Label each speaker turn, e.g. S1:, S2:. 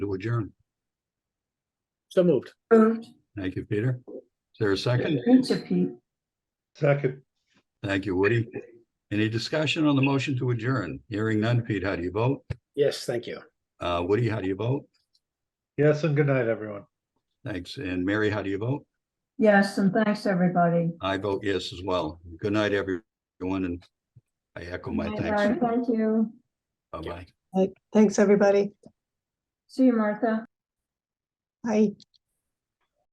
S1: to adjourn.
S2: So moved.
S3: Moved.
S1: Thank you, Peter. Is there a second?
S3: Thank you, Pete.
S4: Second,
S1: Thank you, Woody. Any discussion on the motion to adjourn? Hearing none. Pete, how do you vote?
S2: Yes, thank you.
S1: Uh, Woody, how do you vote?
S4: yes, and good night, everyone.
S1: Thanks. And Mary, how do you vote?
S3: Yes, and thanks, everybody.
S1: I vote yes as well. Good night, everyone, and I echo my
S3: Bye-bye.
S1: thanks.
S3: Thank you.
S1: Bye-bye.
S5: Thanks, everybody.
S3: See you, Martha.
S5: Bye.